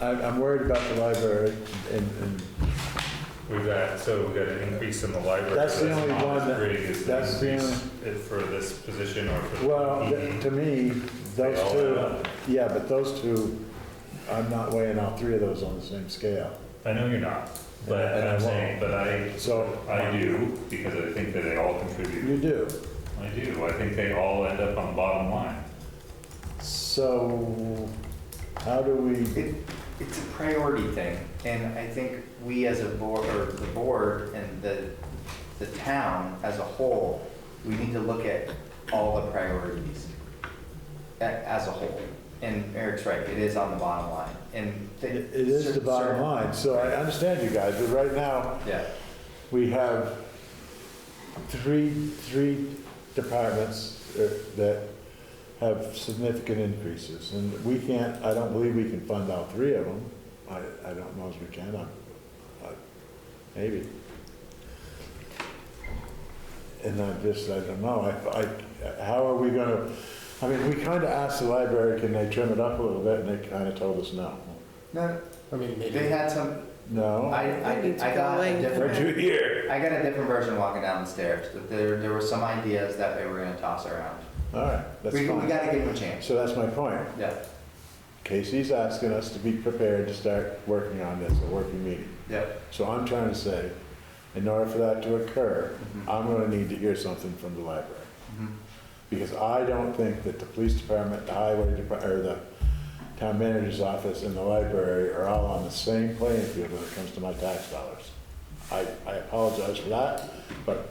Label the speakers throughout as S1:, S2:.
S1: I'm, I'm worried about the library and, and
S2: We've got, so we've got an increase in the library.
S1: That's the only
S2: not
S1: one
S2: as
S1: that-
S2: Big as the
S1: that's the
S2: increase it- for this position or for. E. the
S1: Well,
S2: PD.
S1: th- to me, those
S2: all add up.
S1: two, yeah, but those two, I'm not weighing all three of those on the same scale.
S2: I know you're not, but
S1: And I
S2: I'm
S1: won't.
S2: saying, but I,
S1: So-
S2: I do, because I think that they all contribute.
S1: You do.
S2: I do, I think they all end up on the bottom line.
S1: So how do we,
S3: It, it's a priority thing, and I think we as a board, or the board and the, the town as a whole, we need to look at all the priorities a- as a whole. And Eric's right, it is on the bottom line, and.
S1: it it is the bottom line, so I understand you guys, but right now,
S3: Yeah,
S1: we have three, three departments uh, that have significant increases, and we can't, I don't believe we can fund all three of them. I, I don't know if we can, I, I, maybe. And I just, I don't know, I, I, how are we gonna, I mean, we kinda asked the library, can they trim it up a little bit, and they kinda told us no.
S3: no,
S4: I mean,
S3: they
S4: maybe,
S3: had some,
S1: No?
S3: I, I,
S5: Maybe it's
S3: I got a
S5: going
S1: Where'd
S3: different,
S1: you hear?
S3: I got a different version walking down the stairs, that there, there were some ideas that they were gonna toss around.
S1: All right, that's
S3: We, we
S1: fine.
S3: gotta give them a chance,
S1: So that's my point.
S3: yeah,
S1: Casey's asking us to be prepared to start working on this, a working meeting.
S3: yeah.
S1: So I'm trying to say, in order for that to occur, I'm gonna need to hear something from the library.
S3: Mhm.
S1: Because I don't think that the police department, the highway department, or the town manager's office and the library are all on the same playing field when it comes to my tax dollars. I, I apologize for that, but,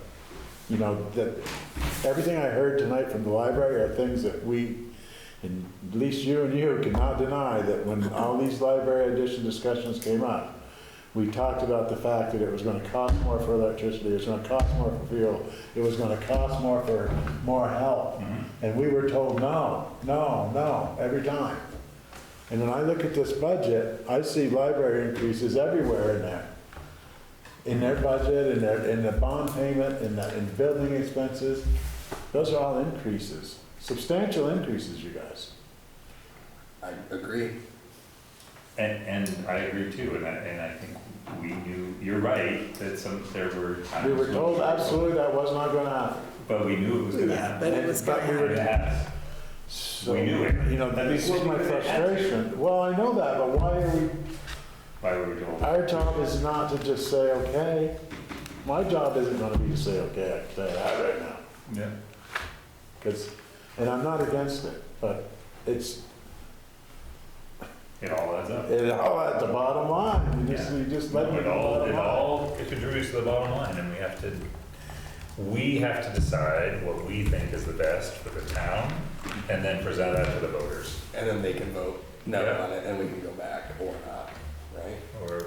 S1: you know, that, everything I heard tonight from the library are things that we, and at least you and you cannot deny that when all these library addition discussions came up, we talked about the fact that it was gonna cost more for electricity, it was gonna cost more for fuel, it was gonna cost more for more help. And we were told, no, no, no, every time. And when I look at this budget, I see library increases everywhere in there. In their budget, in their, in the bond payment, in the, in building expenses, those are all increases, substantial increases, you guys.
S6: I agree.
S2: And, and I agree too, and I, and I think we knew, you're right, that some, there were times.
S1: We were
S2: when-
S1: told absolutely that was not gonna happen.
S2: But we knew it was gonna
S5: Yeah,
S2: happen.
S5: but it was
S1: But
S5: gonna
S1: we were-
S5: happen.
S2: Yeah.
S1: So,
S2: We knew it.
S1: You know,
S2: At
S1: this
S2: least
S1: is
S2: we
S1: my
S2: knew it.
S1: frustration. Well, I know that, but why are we,
S2: Why were we told?
S1: our job is not to just say, okay. My job isn't gonna be to say, okay, I can say that right now.
S2: Yeah.
S1: Because, and I'm not against it, but it's,
S2: It all adds up.
S1: it all at the bottom line. You just,
S2: Yeah.
S1: you just let me
S2: It all,
S1: know.
S2: it all it contributes to the bottom line, and we have to, we have to decide what we think is the best for the town, and then present that to the voters,
S6: And then they can vote no
S2: Yeah.
S6: on it, and we can go back or not, right?
S2: or,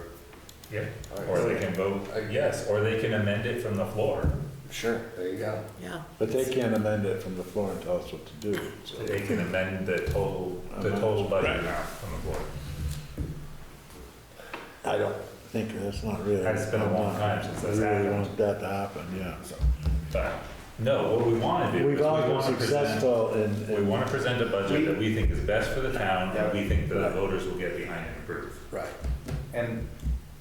S2: yeah,
S6: All right,
S2: or
S6: so-
S2: they can vote yes, or they can amend it from the floor.
S6: Sure, there you go.
S5: Yeah.
S1: But they can't amend it from the floor and tell us what to do. so.
S2: They can amend the total, the
S1: Uh-huh.
S2: total budget amount from the floor.
S1: I don't think, that's not really.
S2: It's been a long time since that's
S1: I really
S2: happened.
S1: want that to happen, yeah.
S2: But, no, what we wanna do is
S1: We've
S2: we
S1: all been
S2: wanna present,
S1: successful in. in-
S2: we wanna present a budget that we think is best for the town, and we think that the voters will get behind and approve.
S6: Right.
S3: And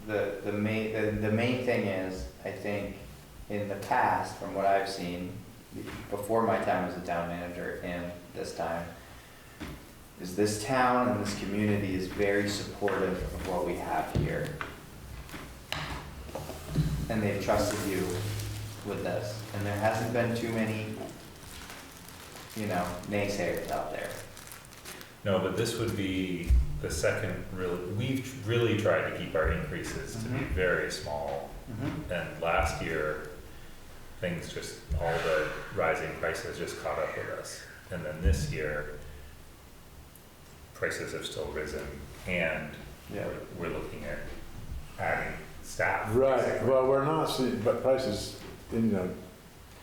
S3: the, the main, the, the main thing is, I think, in the past, from what I've seen, before my time as a town manager and this time, is this town and this community is very supportive of what we have here. And they've trusted you with this, and there hasn't been too many, you know, naysayers out there.
S2: No, but this would be the second real, we've really tried to keep our increases to be
S3: Mhm.
S2: very small. And last year, things just, all the rising prices just caught up with us. And then this year, prices have still risen and
S3: Yeah.
S2: we're- we're looking at adding staff.
S1: Right,
S2: basically.
S1: well, we're not seeing, but prices, you know,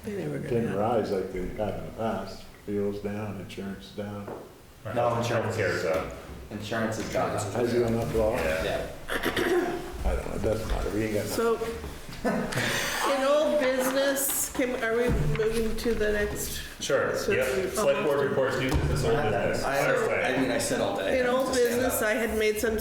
S5: They were gonna
S1: didn't
S5: happen.
S1: rise like they have in the past. Fuel's down, insurance down,
S2: Our
S3: No,
S2: health-
S3: insurance Oh.
S2: healthcare's
S3: is-
S2: up.
S3: Insurance has gone up.
S1: has it gone up at all?
S2: Yeah.
S3: Yeah.
S1: I don't know, it doesn't matter, we ain't got nothing.
S5: So, in old business, can, are we moving to the next?
S2: Sure,
S5: So we-
S2: yep. Select board reports, new business, old
S3: I have that.
S2: business.
S6: I,
S2: Fire away.
S6: I mean, I said all day.
S5: In old
S6: Just stand up.
S5: business, I had made some